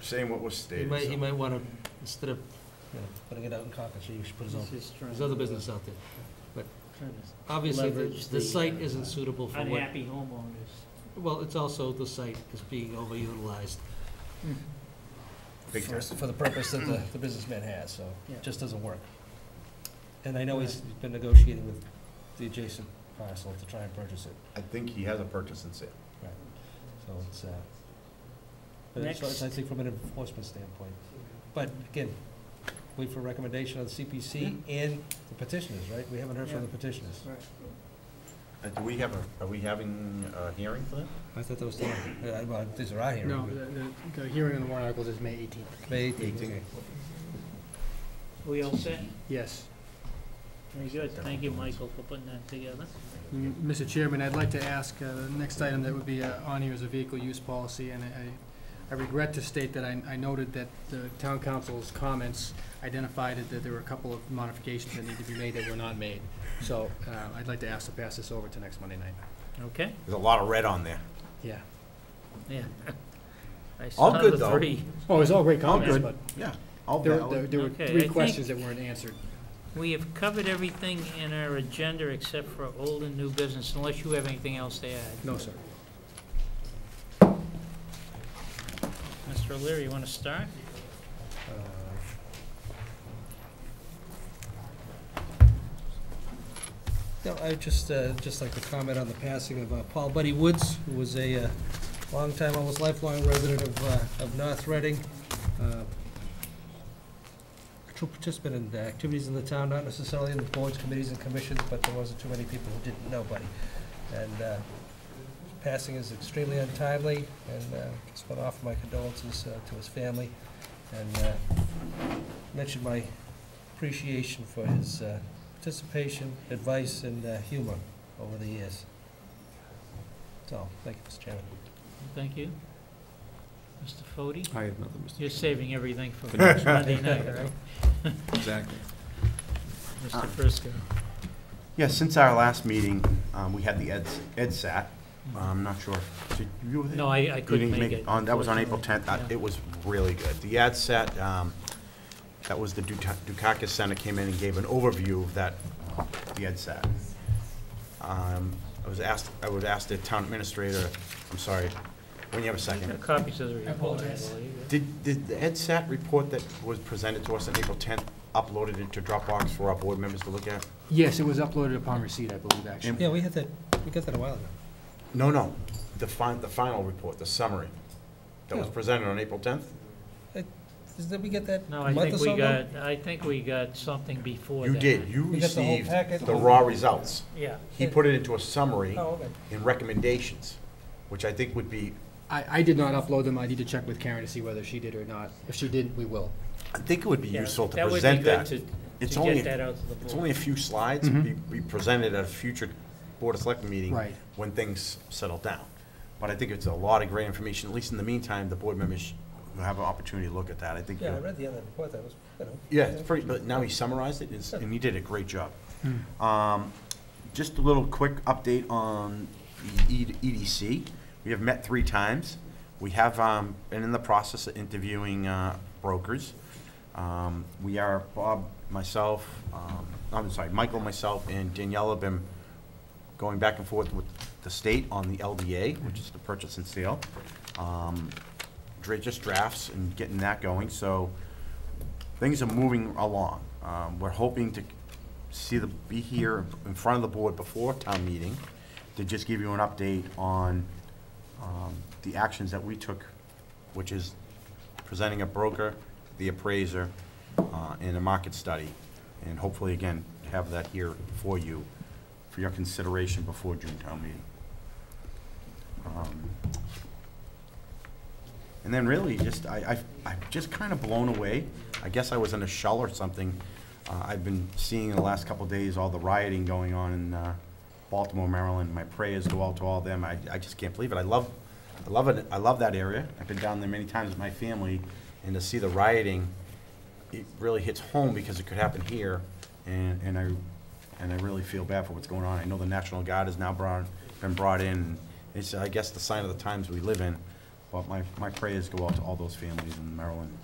saying what was He stated. might, he so- might wanna, instead of, you know, putting it out in Concord, you should put his own, there's other business out there. Obviously, Leverage the, the the, site uh, isn't suitable for what, Unhappy homeowners. well, it's also, the site is being overutilized Big for, time. for the purpose that the, the businessman has, so Yeah. it just doesn't work. And I know he's been negotiating with the adjacent parcel to try and purchase it, I think he has a purchase and sale. so it's, uh, but it's, it's, I think from an enforcement standpoint. But again, wait for recommendation on CPC and the petitioners, right? We haven't heard from the petitioners. Uh, Do we have a, are we having a hearing for that? I thought that was, the- uh, well, these are our hearing. No, the- the, the hearing on the warrant articles is May 18th. May eighteenth, Eighteenth. okay. We all set? Yes. Very good. Thank you, Michael, for putting that together. Mm-hmm. Mm-hmm. M- Mr. Chairman, I'd like to ask, uh, the next item that would be uh, on here is a vehicle use policy, and I- I I regret to state that I I noted that the town council's comments identified it that there were a couple of modifications that need to be made that were not made. So uh, I'd like to ask to pass this over to next Monday night. Okay? There's a lot of red on there. Yeah. Yeah. I All saw good, the though. three. Oh, it was all great All comments, good. but Yeah. All there valid. there- there were Okay, I three think- questions that weren't answered. We have covered everything in our agenda except for old and new business, unless you have anything else to add. No, sir. Mr. O'Leary, you want to start? Uh, No, I just, uh, just like to comment on the passing of uh, Paul Buddy Woods, who was a uh, longtime, almost lifelong resident of, uh, of North Reading. uh, True participant in the activities in the town, not necessarily in the boards, committees, and commissions, but there wasn't too many people who didn't know Buddy. And uh, his passing is extremely untimely, and uh, just want to offer my condolences uh, to his family. And uh, mention my appreciation for his uh, participation, advice, and uh, humor over the years. So, thank you, Mr. Chairman. Thank you. Mr. Fode? I have nothing, Mr. Chairman. You're saving everything for next Monday night, all right? Exactly. Mr. Frisco? Yeah, since our last meeting, um, we had the Ed, Ed Sat. Mm-hmm. I'm not sure. Did you? No, I, I You couldn't didn't make it. on- That was on April unfortunately. 10th. I- Yeah. It was really good. The ad set, um, that was the Dukak- Dukakis Center came in and gave an overview of that, uh, the ad set. Um, I was asked, I would ask the town administrator, I'm sorry, when you have a You got second. Copies of the report, I apologize. believe. Did, did the Ed Sat report that was presented to us on April 10th uploaded into Dropbox for our board members to look at? Yes, it was uploaded upon receipt, I believe, actually. Yeah, we had that, we got that a while ago. No, no, the fin, the final report, the summary that was Yeah. presented on April 10th? Did we get that No, I a month or think so we ago? got, I think we got something before You that. did. You We got the whole received packet? the raw results. Yeah. He put it into a summary Oh, okay. and recommendations, which I think would be, I, I did not upload them. I need to check with Karen to see whether she did or not. If she didn't, we will. I think it would be Yeah, useful to present That would that. be good It's to, to only- get that out to the It's only board. a few slides, Mhm. be, be presented at a future Board of Selectmen meeting. Right. When things settle down. But I think it's a lot of great information, at least in the meantime, the board members will have an opportunity to look at that, I think. Yeah, I you'll- read the other report, that was, you know. Yeah, it's pretty, but now he summarized it, and it's- and he did a great job. Um, Just a little quick update on the E- EDC. We have met three times. We have um, been in the process of interviewing uh, brokers. Um, We are, Bob, myself, um, I'm sorry, Michael, myself, and Danielle have been going back and forth with the state on the LDA, which is the purchase and sale. Um, dra- Just drafts and getting that going, so things are moving along. Um, We're hoping to see the, be here in front of the board before town meeting to just give you an update on um, the actions that we took, which is presenting a broker, the appraiser, uh, and a market study. And hopefully, again, have that here for you, for your consideration before June town meeting. Um, and then really, just, I, I, I'm just kind of blown away. I guess I was in a shell or something. Uh, I've been seeing in the last couple of days all the rioting going on in, uh, Baltimore, Maryland. My prayers go out to all them. I, I just can't believe it. I love, I love it. I love that area. I've been down there many times with my family, and to see the rioting, it really hits home because it could happen here, and, and I, and I really feel bad for what's going on. I know the National Guard has now brought, been brought in. It's, I guess, the sign of the times we live in, But my, my prayers go out to all those families in Maryland